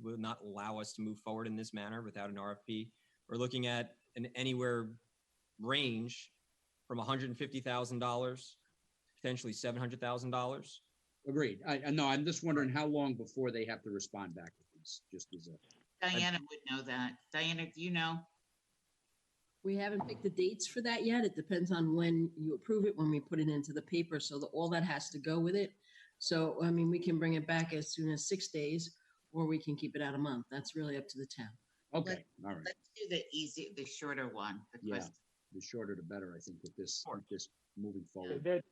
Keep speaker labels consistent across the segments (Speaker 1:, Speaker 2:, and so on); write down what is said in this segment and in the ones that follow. Speaker 1: will not allow us to move forward in this manner without an RFP. We're looking at an anywhere range from $150,000, potentially $700,000.
Speaker 2: Agreed. I, I know, I'm just wondering how long before they have to respond back to these, just as a,
Speaker 3: Diana would know that. Diana, do you know?
Speaker 4: We haven't picked the dates for that yet. It depends on when you approve it, when we put it into the paper, so that all that has to go with it. So, I mean, we can bring it back as soon as six days, or we can keep it out a month. That's really up to the town.
Speaker 2: okay, all right.
Speaker 3: Let's do the easy, the shorter one.
Speaker 2: Yeah.
Speaker 3: because
Speaker 2: The shorter the better, I think, with this,
Speaker 1: Sure.
Speaker 2: with this moving forward.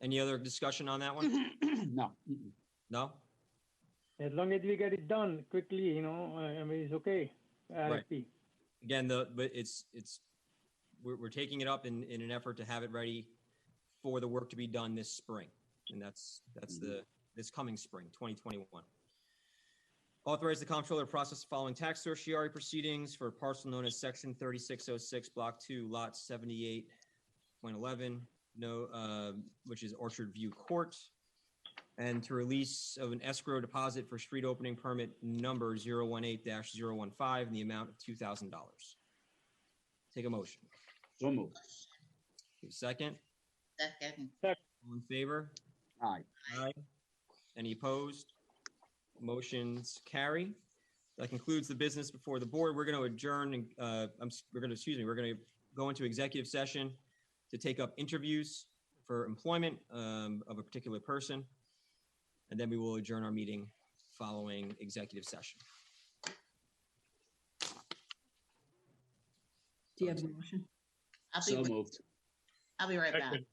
Speaker 5: That,
Speaker 1: Any other discussion on that one?
Speaker 2: No, mm-mm.
Speaker 1: No?
Speaker 5: as long as we get it done quickly, you know, uh, I I mean, it's okay. RFP.
Speaker 1: Again, the, but it's, it's, we're, we're taking it up in, in an effort to have it ready for the work to be done this spring. And that's, that's the, this coming spring, 2021. Authorize the comptroller to process the following tax certiorari proceedings for a parcel known as section 3606, block 2, lot 78.11, no, uh, which is Orchard View Court. and to release of an escrow deposit for street opening permit number 018-015 in the amount of $2,000. Take a motion.
Speaker 2: so moved.
Speaker 1: Take a Second,
Speaker 3: Second,
Speaker 1: all in favor?
Speaker 2: Aye.
Speaker 1: Aye. Any opposed? Motions carry. That concludes the business before the board. We're going to adjourn and, uh, I'm, s- we're going to, excuse me, we're going to go into executive session to take up interviews for employment, um, of a particular person. And then we will adjourn our meeting following executive session.
Speaker 4: Do you have a motion?
Speaker 3: I'll
Speaker 2: So
Speaker 3: be,
Speaker 2: moved.
Speaker 3: I'll be right back.
Speaker 6: Second.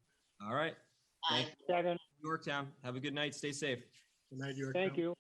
Speaker 1: All right.
Speaker 3: Bye.
Speaker 1: Thank
Speaker 5: Second,
Speaker 1: Yorktown, have a good night. Stay safe.
Speaker 6: Good night, Yorktown.
Speaker 5: thank you.